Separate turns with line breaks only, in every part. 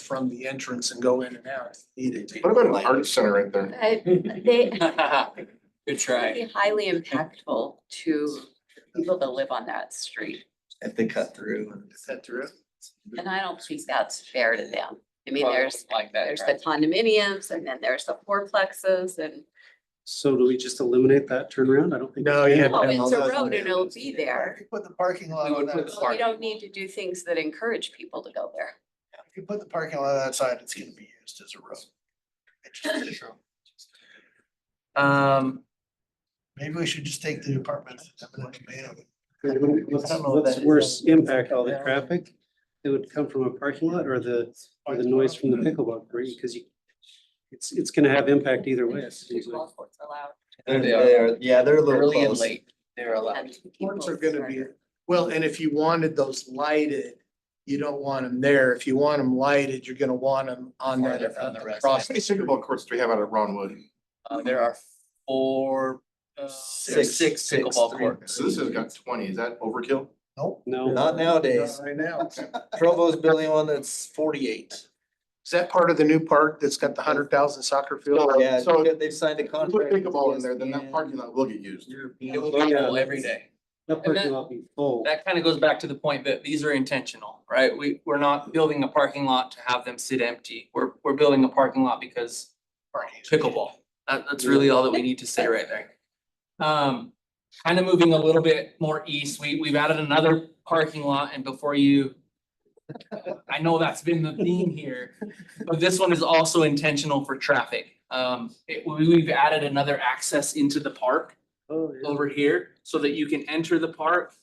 from the entrance and go in and out if needed.
What about an art center in there?
I- They,
Good
it'd
try.
be highly impactful to people that live on that street.
if they cut through and.
Is that true?
And I don't think that's fair to them. I mean,
Well,
there's,
Like that.
there's the
right?
condominiums and then there's the fourplexes and,
So do we just eliminate that turnaround? I don't think.
No, yeah.
oh, it's a road and it'll be there.
If you put the parking lot
We
on
would put
that,
the
Well,
side-
We don't need to do things that encourage people to go there.
if you put the parking lot on that side, it's gonna be used as a road. It just is.
Um,
Maybe we should just take the apartment.
What's, what's worse impact, all the traffic that would come from a parking lot or the, or the noise from the pickleball green? Because you, it's, it's gonna have impact either way. it seems like.
Pickleball courts allowed
They're,
They are.
they're, yeah, they're a little
early and
close.
late, they're allowed.
and
Courts are
people
gonna be,
are-
well, and if you wanted those lighted, you don't want them there. If you want them lighted, you're gonna want them on that.
Farther from the rest.
across
How many pickleball courts do we have out of Ron Wood?
Uh, there are four, uh,
Six,
six
six,
pickleball
three.
courts.
So this has got twenty, is that overkill?
Nope,
No,
not nowadays.
Right now.
Provo's building one that's forty-eight.
Is that part of the new park that's got the hundred thousand soccer field?
Yeah,
so-
because they've signed a
If you Put
contract. with E
pickleball in there, then that
ESPN.
parking lot will get used.
It will be full every day.
that parking lot be full.
That kind of goes back to the point that these are intentional, right? We, we're not building a parking lot to have them sit empty. We're, we're building a parking lot because pickleball. That, that's really all that we need to say right there. Um, kind of moving a little bit more east, we, we've added another parking lot and before you. I know that's been the theme here, but this one is also intentional for traffic. Um, it, we- we've added another access into the park
Oh, yeah.
over here so that you can enter the park,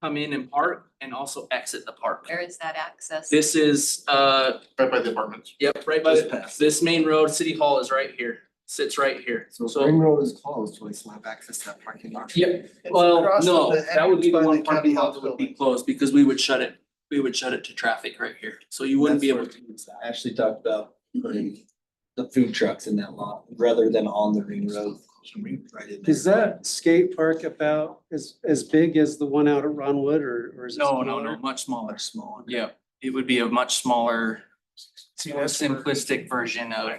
come in and park and also exit the park.
Where is that access?
This is, uh,
Right by the apartments.
Yep, right by the, this main road, city hall is right here, sits right here, so.
Road is closed, we still have access to that parking lot.
Yep,
It's
well,
across
no,
from the
that would be the
entrance by
one
the
parking
county
lot that
health
would be
building.
closed, because we would shut it, we would shut it to traffic right here, so you wouldn't be
That's
able to use that.
Ashley talked about putting the food trucks in that lot rather than on the ring road. Right in there.
Is that skate park about as, as big as the one out at Ron Wood or, or is it?
No, no, no,
smaller?
much smaller,
Much smaller.
yeah, it would be a much smaller,
See,
more
that's where-
simplistic version of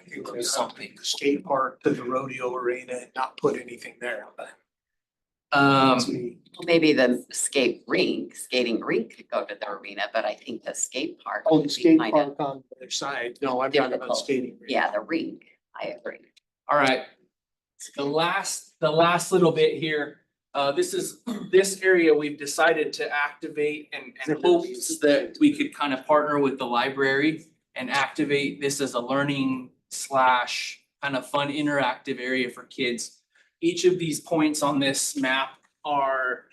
something.
The skate park to the rodeo arena and not put anything there. That's
Um,
me.
Well, Maybe the skate rink, skating rink could go to the arena, but I think the skate park.
Oh,
would
the
be
skate
kind of-
park on the other side. No, I'm talking about
Difficult.
skating. rink.
Yeah, the rink, I agree.
all right, the last, the last little bit here, uh, this is, this area we've decided to activate and, and hopes that we could kind of partner with the library and activate this as a learning slash kind of fun interactive area for kids. Each of these points on this map are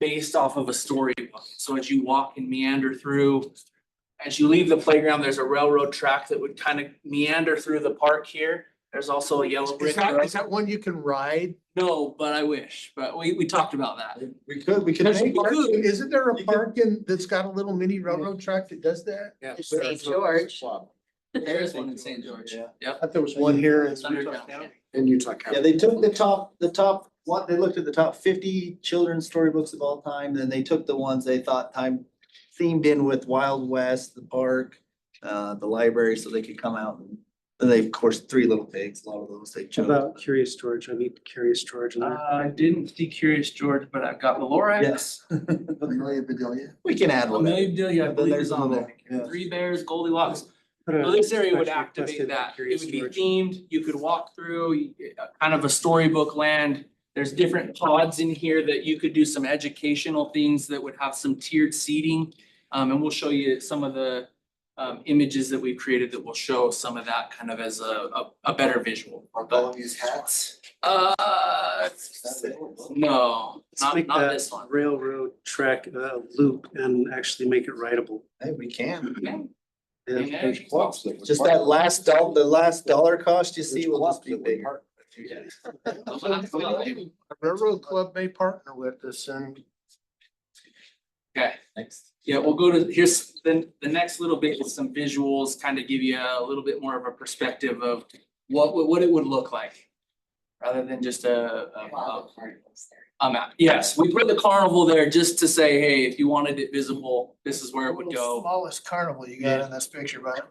based off of a storybook. So as you walk and meander through, as you leave the playground, there's a railroad track that would kind of meander through the park here. There's also a yellow
Is
brick
that,
road.
is that one you can ride?
No, but I wish, but we, we talked about that.
We could, we could.
There's a
make-
park- Isn't there a
You could-
park in, that's got a little mini railroad track that does that?
Yeah.
There's St. George,
There is one in St. George.
Yeah.
I thought there was one here in
It's underground.
In Utah
Yeah,
County.
they took the top, the top, what, they looked at the top fifty children's storybooks of all time, then they took the ones they thought time themed in with Wild West, the park, uh, the library, so they could come out and then they, of course, Three Little Pigs, a lot of those they
How
chose.
About Curious George. I need Curious George in
Uh,
there.
I didn't see Curious George, but I've got Valora.
Yes. Amelia Bedelia. We can add one.
Amelia Bedelia, I
But
believe
there's
is
a
on
little-
there.
yeah.
Three Bears, Goldilocks.
Put a
So this area would
special request in
activate that. It
Curious
would be
George.
themed. You could walk through you- uh, kind of a storybook land. There's different pods in here that you could do some educational things that would have some tiered seating. Um, and we'll show you some of the um, images that we've created that will show some of that kind of as a, a, a better visual.
All these hats.
Uh, no,
Let's
not,
make
not
that
this one.
Railroad track, uh, loop and actually make it rideable.
Hey, we can.
Yeah.
And there's clubs
Just that last doll, the last dollar cost you see will just be bigger.
Okay,
Railroad Club may partner with us and
yeah, we'll go to, here's, then the next little bit is some visuals, kind of give you a little bit more of a perspective of what, would- what it would look like. Rather than just a, a-
while
a,
the carnival's there.
a map. Yes, we put the carnival there just to say, hey, if you wanted it visible, this is where it would go.
Smallest carnival you got in this picture, but